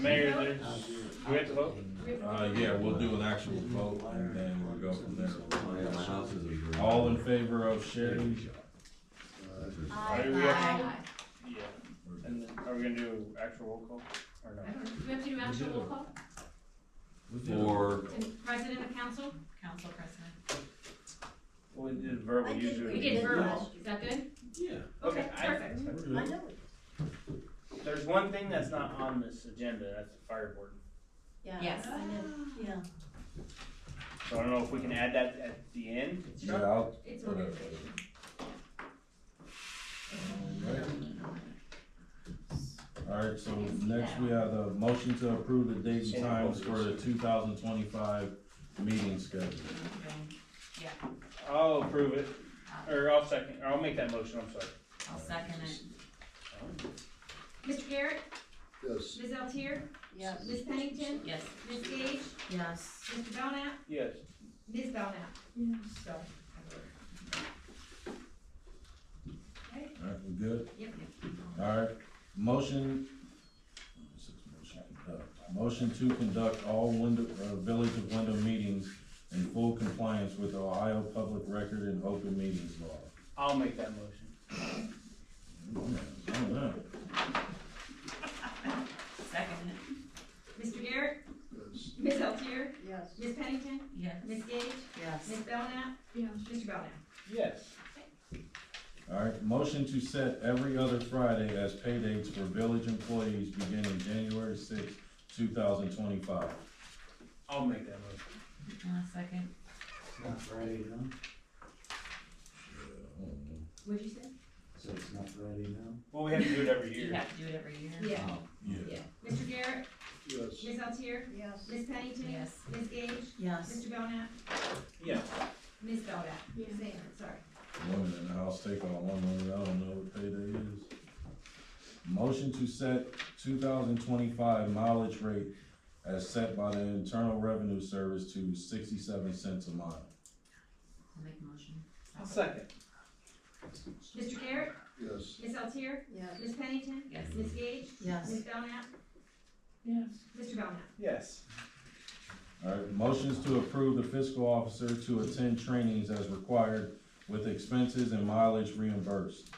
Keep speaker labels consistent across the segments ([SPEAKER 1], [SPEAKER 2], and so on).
[SPEAKER 1] Mayor, there's, we have to vote?
[SPEAKER 2] Uh, yeah, we'll do an actual vote and then we'll go from there.
[SPEAKER 3] Oh, My house is a green-
[SPEAKER 2] All in favor of Sherry?
[SPEAKER 4] Uh,
[SPEAKER 1] Aye.
[SPEAKER 4] We have-
[SPEAKER 1] Yeah. And then, are we gonna do actual roll call, or no?
[SPEAKER 4] I don't know. Do we have to do actual roll call?
[SPEAKER 3] Or,
[SPEAKER 4] And President of council? Council president.
[SPEAKER 1] We did verbal
[SPEAKER 5] I think
[SPEAKER 1] usually.
[SPEAKER 4] We did verbal, is that good?
[SPEAKER 3] yeah.
[SPEAKER 1] Okay, I-
[SPEAKER 4] Perfect.
[SPEAKER 5] I know, it.
[SPEAKER 1] There's one thing that's not on this agenda, that's the fire board.
[SPEAKER 5] yeah.
[SPEAKER 4] Yes.
[SPEAKER 5] I know, Yeah.
[SPEAKER 1] So I don't know if we can add that at the end.
[SPEAKER 2] Yeah, I'll-
[SPEAKER 4] It's
[SPEAKER 2] Whatever.
[SPEAKER 4] organization.
[SPEAKER 2] Alright, so next we have the motion to approve the dates and times for the two thousand twenty-five meeting schedule.
[SPEAKER 1] I'll approve it, or I'll second, or I'll make that motion, I'm sorry.
[SPEAKER 6] I'll second it.
[SPEAKER 4] Mr. Garrett,
[SPEAKER 7] Yes.
[SPEAKER 4] Ms. Altier,
[SPEAKER 5] Yeah.
[SPEAKER 4] Ms. Pennington,
[SPEAKER 6] Yes.
[SPEAKER 4] Ms. Gage,
[SPEAKER 6] Yes.
[SPEAKER 4] Mr. Belknap,
[SPEAKER 1] Yes.
[SPEAKER 4] Ms. Belknap. So.
[SPEAKER 2] Alright, we good?
[SPEAKER 4] Yep.
[SPEAKER 2] Alright, motion. uh, Motion to conduct all window, uh, Village of Wyndham meetings in full compliance with Ohio Public Record and Open Meetings Law.
[SPEAKER 1] I'll make that motion.
[SPEAKER 2] I don't know.
[SPEAKER 6] Second it.
[SPEAKER 4] Mr. Garrett,
[SPEAKER 7] Yes.
[SPEAKER 4] Ms. Altier,
[SPEAKER 5] Yes.
[SPEAKER 4] Ms. Pennington,
[SPEAKER 6] Yes.
[SPEAKER 4] Ms. Gage,
[SPEAKER 5] Yes.
[SPEAKER 4] Ms. Belknap. Mr. Belknap.
[SPEAKER 1] Yes.
[SPEAKER 2] Alright, motion to set every other Friday as pay dates for village employees beginning January sixth, two thousand twenty-five.
[SPEAKER 1] I'll make that motion.
[SPEAKER 6] I'll second.
[SPEAKER 8] Not Friday, no?
[SPEAKER 4] What'd you say?
[SPEAKER 8] So it's not Friday now?
[SPEAKER 1] Well, we have to do it every
[SPEAKER 6] You
[SPEAKER 1] year.
[SPEAKER 6] have to do it every year.
[SPEAKER 4] Yeah,
[SPEAKER 1] Oh.
[SPEAKER 2] Yeah.
[SPEAKER 4] yeah. Mr. Garrett,
[SPEAKER 7] Yes.
[SPEAKER 4] Ms. Altier,
[SPEAKER 5] Yes.
[SPEAKER 4] Ms. Pennington,
[SPEAKER 6] Yes.
[SPEAKER 4] Ms. Gage,
[SPEAKER 6] Yes.
[SPEAKER 4] Mr. Belknap,
[SPEAKER 1] Yes.
[SPEAKER 4] Ms. Belknap. Ms. Zander, sorry.
[SPEAKER 2] Women in the house take on one woman, I don't know what payday is. Motion to set two thousand twenty-five mileage rate as set by the Internal Revenue Service to sixty-seven cents a mile.
[SPEAKER 6] I'll make a motion.
[SPEAKER 1] I'll second.
[SPEAKER 4] Mr. Garrett,
[SPEAKER 7] Yes.
[SPEAKER 4] Ms. Altier,
[SPEAKER 5] Yes.
[SPEAKER 4] Ms. Pennington,
[SPEAKER 6] Yes.
[SPEAKER 4] Ms. Gage,
[SPEAKER 6] Yes.
[SPEAKER 4] Ms. Belknap,
[SPEAKER 5] Yes.
[SPEAKER 4] Mr. Belknap.
[SPEAKER 1] Yes.
[SPEAKER 2] Alright, motions to approve the fiscal officer to attend trainings as required with expenses and mileage reimbursed.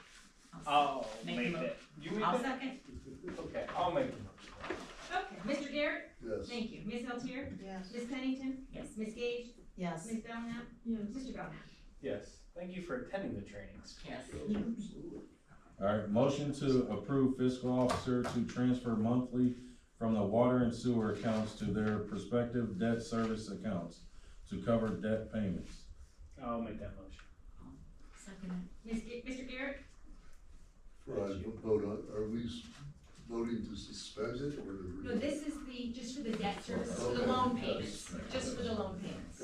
[SPEAKER 1] I'll
[SPEAKER 6] Make
[SPEAKER 1] make
[SPEAKER 6] the mo-
[SPEAKER 1] that. You make
[SPEAKER 6] I'll
[SPEAKER 1] that?
[SPEAKER 6] second.
[SPEAKER 1] Okay, I'll make the motion.
[SPEAKER 4] Okay, Mr. Garrett,
[SPEAKER 7] Yes.
[SPEAKER 4] thank you. Ms. Altier,
[SPEAKER 5] Yes.
[SPEAKER 4] Ms. Pennington,
[SPEAKER 6] Yes.
[SPEAKER 4] Ms. Gage,
[SPEAKER 6] Yes.
[SPEAKER 4] Ms. Belknap, Mr. Belknap.
[SPEAKER 1] Yes. Thank you for attending the trainings.
[SPEAKER 6] Yes.
[SPEAKER 2] Alright, motion to approve fiscal officer to transfer monthly from the water and sewer accounts to their prospective debt service accounts to cover debt payments.
[SPEAKER 1] I'll make that motion.
[SPEAKER 6] Second
[SPEAKER 4] Ms. Ga- Mr. Garrett,
[SPEAKER 7] Right, vote on, are we s- voting to suspend it or to?
[SPEAKER 4] no, this is the, just for the debt service, for the loan payments, just for the loan payments.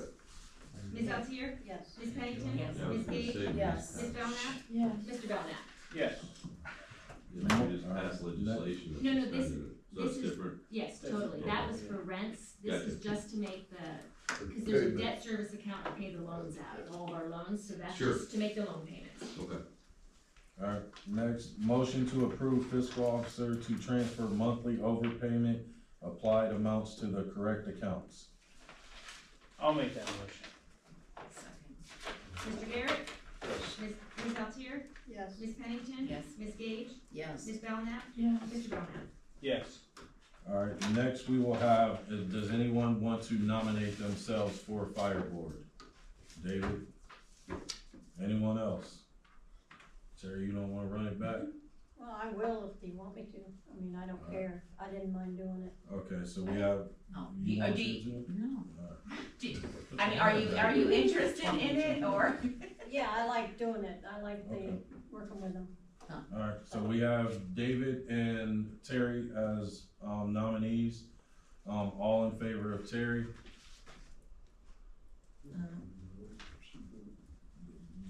[SPEAKER 4] Ms. Altier,
[SPEAKER 5] Yes.
[SPEAKER 4] Ms. Pennington,
[SPEAKER 6] Yes.
[SPEAKER 3] I was
[SPEAKER 4] Ms.
[SPEAKER 3] gonna
[SPEAKER 4] Gage,
[SPEAKER 3] say, we
[SPEAKER 6] Yes.
[SPEAKER 3] just
[SPEAKER 4] Ms. Belknap,
[SPEAKER 5] Yes.
[SPEAKER 4] Mr. Belknap.
[SPEAKER 1] Yes.
[SPEAKER 3] passed- We just passed legislation. that
[SPEAKER 4] No, no, this-
[SPEAKER 3] suspended it. So
[SPEAKER 4] this
[SPEAKER 3] it's
[SPEAKER 4] is-
[SPEAKER 3] different.
[SPEAKER 4] Yes,
[SPEAKER 1] That's-
[SPEAKER 4] totally. That was for rents. This is just to make the, because there's a debt service account to pay the loans out, all of our loans, so that's
[SPEAKER 3] Sure.
[SPEAKER 4] just to make the loan payments.
[SPEAKER 3] Okay.
[SPEAKER 2] Alright, next, motion to approve fiscal officer to transfer monthly overpayment applied amounts to the correct accounts.
[SPEAKER 1] I'll make that motion.
[SPEAKER 6] it. Second.
[SPEAKER 4] Mr. Garrett,
[SPEAKER 7] Yes.
[SPEAKER 4] Ms. Ms. Altier,
[SPEAKER 5] Yes.
[SPEAKER 4] Ms. Pennington,
[SPEAKER 6] Yes.
[SPEAKER 4] Ms. Gage,
[SPEAKER 6] Yes.
[SPEAKER 4] Ms. Belknap,
[SPEAKER 5] Yes.
[SPEAKER 4] Mr. Belknap.
[SPEAKER 1] Yes.
[SPEAKER 2] Alright, next we will have, uh, does anyone want to nominate themselves for fire board? David? Anyone else? Terry, you don't wanna run it back?
[SPEAKER 5] Well, I will if you want me to. I mean, I don't care. I didn't mind doing it.
[SPEAKER 2] Okay, so we have.
[SPEAKER 6] Oh,
[SPEAKER 2] you
[SPEAKER 6] you, are
[SPEAKER 4] uh,
[SPEAKER 2] want
[SPEAKER 6] do
[SPEAKER 2] you
[SPEAKER 6] you,
[SPEAKER 2] to?
[SPEAKER 6] no.
[SPEAKER 2] Alright.
[SPEAKER 6] I mean, are you, are you interested in it or?
[SPEAKER 5] Yeah, I like doing it. I like the,
[SPEAKER 2] Okay.
[SPEAKER 5] working with them.
[SPEAKER 2] Alright, so we have David and Terry as, um, nominees. Um, all in favor of Terry?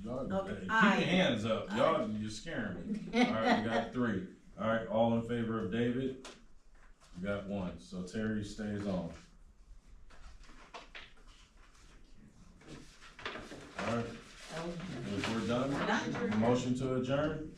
[SPEAKER 2] Y'all,
[SPEAKER 6] Okay,
[SPEAKER 2] keep
[SPEAKER 6] aye.
[SPEAKER 2] your hands up. Y'all, you're scaring me. All right, we got three. All right, all in favor of David? We got one, so Terry stays on. All right,
[SPEAKER 6] Oh,
[SPEAKER 2] if we're done,
[SPEAKER 6] We're done.
[SPEAKER 2] motion to adjourn?